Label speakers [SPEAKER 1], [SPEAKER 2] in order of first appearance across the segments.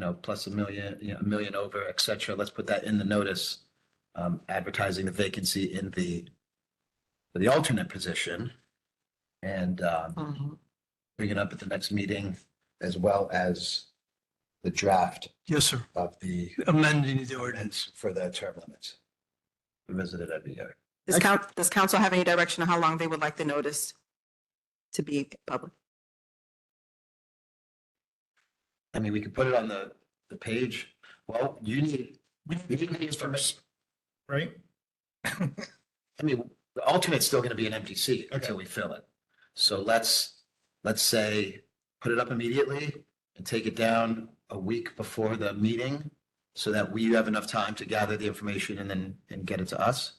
[SPEAKER 1] know, plus a million, you know, a million over, et cetera. Let's put that in the notice. Um, advertising the vacancy in the, the alternate position. And, um, bring it up at the next meeting as well as the draft
[SPEAKER 2] Yes, sir.
[SPEAKER 1] of the,
[SPEAKER 2] Amending the ordinance.
[SPEAKER 1] for the term limits. Visited every year.
[SPEAKER 3] Does coun, does council have any direction on how long they would like the notice to be public?
[SPEAKER 1] I mean, we could put it on the, the page. Well, you need,
[SPEAKER 4] We
[SPEAKER 1] you
[SPEAKER 4] need to
[SPEAKER 1] need
[SPEAKER 4] do
[SPEAKER 1] these
[SPEAKER 4] it
[SPEAKER 1] first.
[SPEAKER 4] first, right?
[SPEAKER 1] I mean, the alternate's still gonna be an empty seat until we fill it. So let's, let's say, put it up immediately and take it down a week before the meeting so that we have enough time to gather the information and then, and get it to us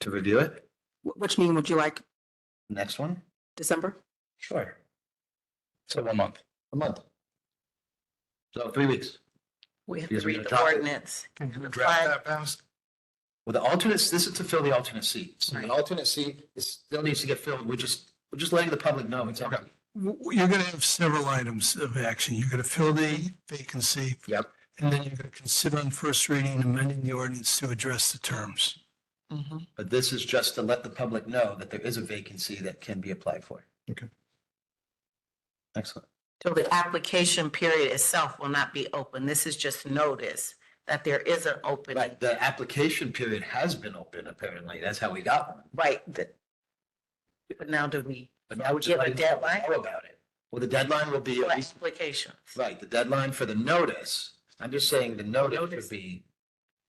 [SPEAKER 1] to review it.
[SPEAKER 3] Wh- Which meeting would you like,
[SPEAKER 1] Next one?
[SPEAKER 3] December?
[SPEAKER 1] Sure.
[SPEAKER 4] So one month.
[SPEAKER 1] A month. So three weeks.
[SPEAKER 5] We have to
[SPEAKER 1] Because we
[SPEAKER 5] read
[SPEAKER 1] gotta
[SPEAKER 5] the
[SPEAKER 1] talk it.
[SPEAKER 5] ordinance.
[SPEAKER 4] Draft that past.
[SPEAKER 1] Well, the alternates, this is to fill the alternate seat. So
[SPEAKER 5] Right.
[SPEAKER 1] the alternate seat is, still needs to get filled. We're just, we're just letting the public know. It's
[SPEAKER 4] Okay.
[SPEAKER 1] empty.
[SPEAKER 2] W- You're going to have several items of action. You're going to fill the vacancy.
[SPEAKER 1] Yep.
[SPEAKER 2] And then you're going to consider on first reading amending the ordinance to address the terms.
[SPEAKER 1] But this is just to let the public know that there is a vacancy that can be applied for.
[SPEAKER 4] Okay.
[SPEAKER 1] Excellent.
[SPEAKER 5] So the application period itself will not be open. This is just notice that there is an opening.
[SPEAKER 1] But the application period has been open, apparently. That's how we got one.
[SPEAKER 5] Right, the- but now do we
[SPEAKER 1] But now we're just
[SPEAKER 5] Give a
[SPEAKER 1] letting the public
[SPEAKER 5] deadline?
[SPEAKER 1] know about it. Well, the deadline will be,
[SPEAKER 5] for
[SPEAKER 1] at least-
[SPEAKER 5] applications?
[SPEAKER 1] right, the deadline for the notice. I'm just saying the notice
[SPEAKER 5] Notice.
[SPEAKER 1] would be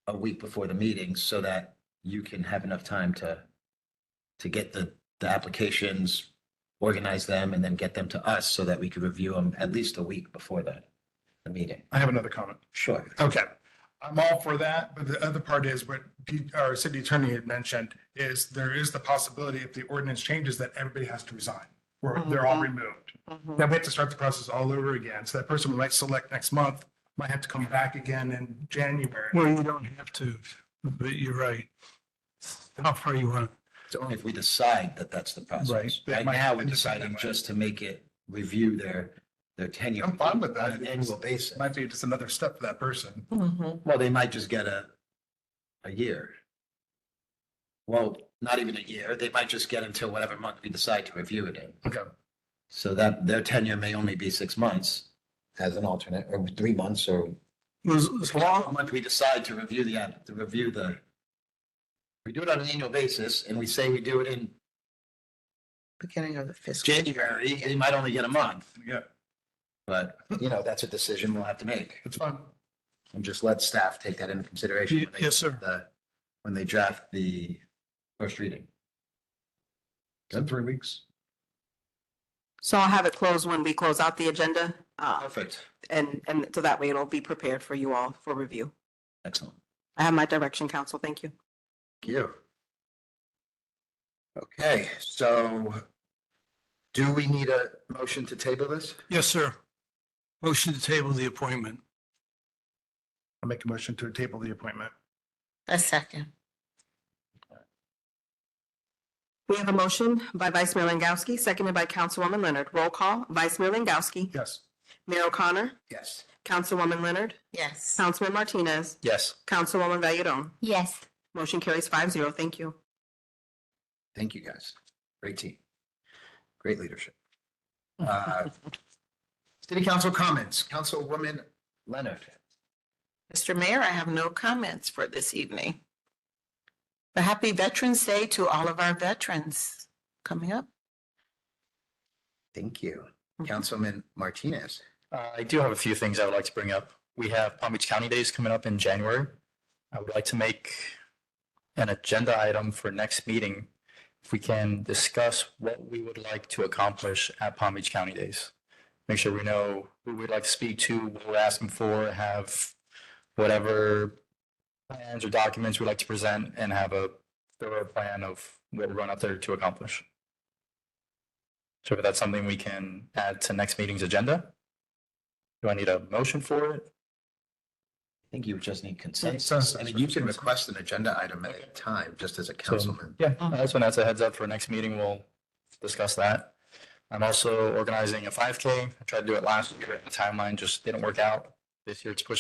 [SPEAKER 1] a week before the meeting so that you can have enough time to, to get the, the applications, organize them and then get them to us so that we could review them at least a week before the, the meeting.
[SPEAKER 4] I have another comment.
[SPEAKER 1] Sure.
[SPEAKER 4] Okay. I'm all for that, but the other part is what D- our city attorney had mentioned is there is the possibility if the ordinance changes that everybody has to resign. Or they're all removed. Then we have to start the process all over again. So that person we might select next month might have to come back again in January.
[SPEAKER 2] Well, you don't have to, but you're right. How far you want.
[SPEAKER 1] It's only if we decide that that's the
[SPEAKER 4] Right.
[SPEAKER 1] process. Right
[SPEAKER 4] Might
[SPEAKER 1] now, we're
[SPEAKER 4] end up that
[SPEAKER 1] deciding
[SPEAKER 4] way.
[SPEAKER 1] just to make it review their, their tenure.
[SPEAKER 4] I'm fine with
[SPEAKER 1] On
[SPEAKER 4] that.
[SPEAKER 1] an annual basis.
[SPEAKER 4] Might be just another step for that person.
[SPEAKER 5] Mhm.
[SPEAKER 1] Well, they might just get a, a year. Well, not even a year. They might just get until whatever month we decide to review it in.
[SPEAKER 4] Okay.
[SPEAKER 1] So that their tenure may only be six months. As an alternate, or three months, or.
[SPEAKER 2] As as long,
[SPEAKER 1] Month we decide to review the, app- to review the. We do it on an annual basis and we say we do it in
[SPEAKER 5] Beginning of the fiscal.
[SPEAKER 1] January, they might only get a month.
[SPEAKER 4] Yeah,
[SPEAKER 1] But, you know, that's a decision we'll have to make.
[SPEAKER 4] it's fine.
[SPEAKER 1] And just let staff take that into consideration. when they-
[SPEAKER 2] yes, sir.
[SPEAKER 1] the- When they draft the first reading.
[SPEAKER 4] In three weeks.
[SPEAKER 3] So I'll have it closed when we close out the agenda, uh,
[SPEAKER 1] Perfect.
[SPEAKER 3] and, and so that way it'll be prepared for you all for review.
[SPEAKER 1] Excellent.
[SPEAKER 3] I have my direction, council. Thank you.
[SPEAKER 1] Thank you. Okay, so do we need a motion to table this?
[SPEAKER 2] Yes, sir. Motion to table the appointment.
[SPEAKER 4] I'll make a motion to table the appointment.
[SPEAKER 5] A second.
[SPEAKER 3] We have a motion by Vice Mayor Langowski, seconded by Councilwoman Leonard. Roll call, Vice Mayor Langowski,
[SPEAKER 4] Yes.
[SPEAKER 3] Mayor O'Connor,
[SPEAKER 1] Yes.
[SPEAKER 3] Councilwoman Leonard,
[SPEAKER 5] Yes.
[SPEAKER 3] Councilman Martinez,
[SPEAKER 1] Yes.
[SPEAKER 3] Councilwoman Vayeron.
[SPEAKER 5] Yes.
[SPEAKER 3] Motion carries five zero. Thank you.
[SPEAKER 1] Thank you, guys. Great team. Great leadership. Uh, City Council comments, Councilwoman Leonard.
[SPEAKER 5] Mr. Mayor, I have no comments for this evening. But happy Veterans Day to all of our veterans coming up.
[SPEAKER 1] Thank you. Councilman Martinez.
[SPEAKER 6] Uh, I do have a few things I would like to bring up. We have Palm Beach County Days coming up in January. I would like to make an agenda item for next meeting. If we can discuss what we would like to accomplish at Palm Beach County Days. Make sure we know who we'd like to speak to, what we're asking for, have whatever plans or documents we'd like to present and have a thorough plan of what we're going up there to accomplish. So if that's something we can add to next meeting's agenda. Do I need a motion for it?
[SPEAKER 1] I think you just need consensus.
[SPEAKER 4] Consensus.
[SPEAKER 1] I mean, you can request an agenda item at a time, just as a councilman.
[SPEAKER 6] Yeah, that's when that's a heads up for next meeting. We'll discuss that. I'm also organizing a five K. I tried to do it last year. The timeline just didn't work out. This year it's pushed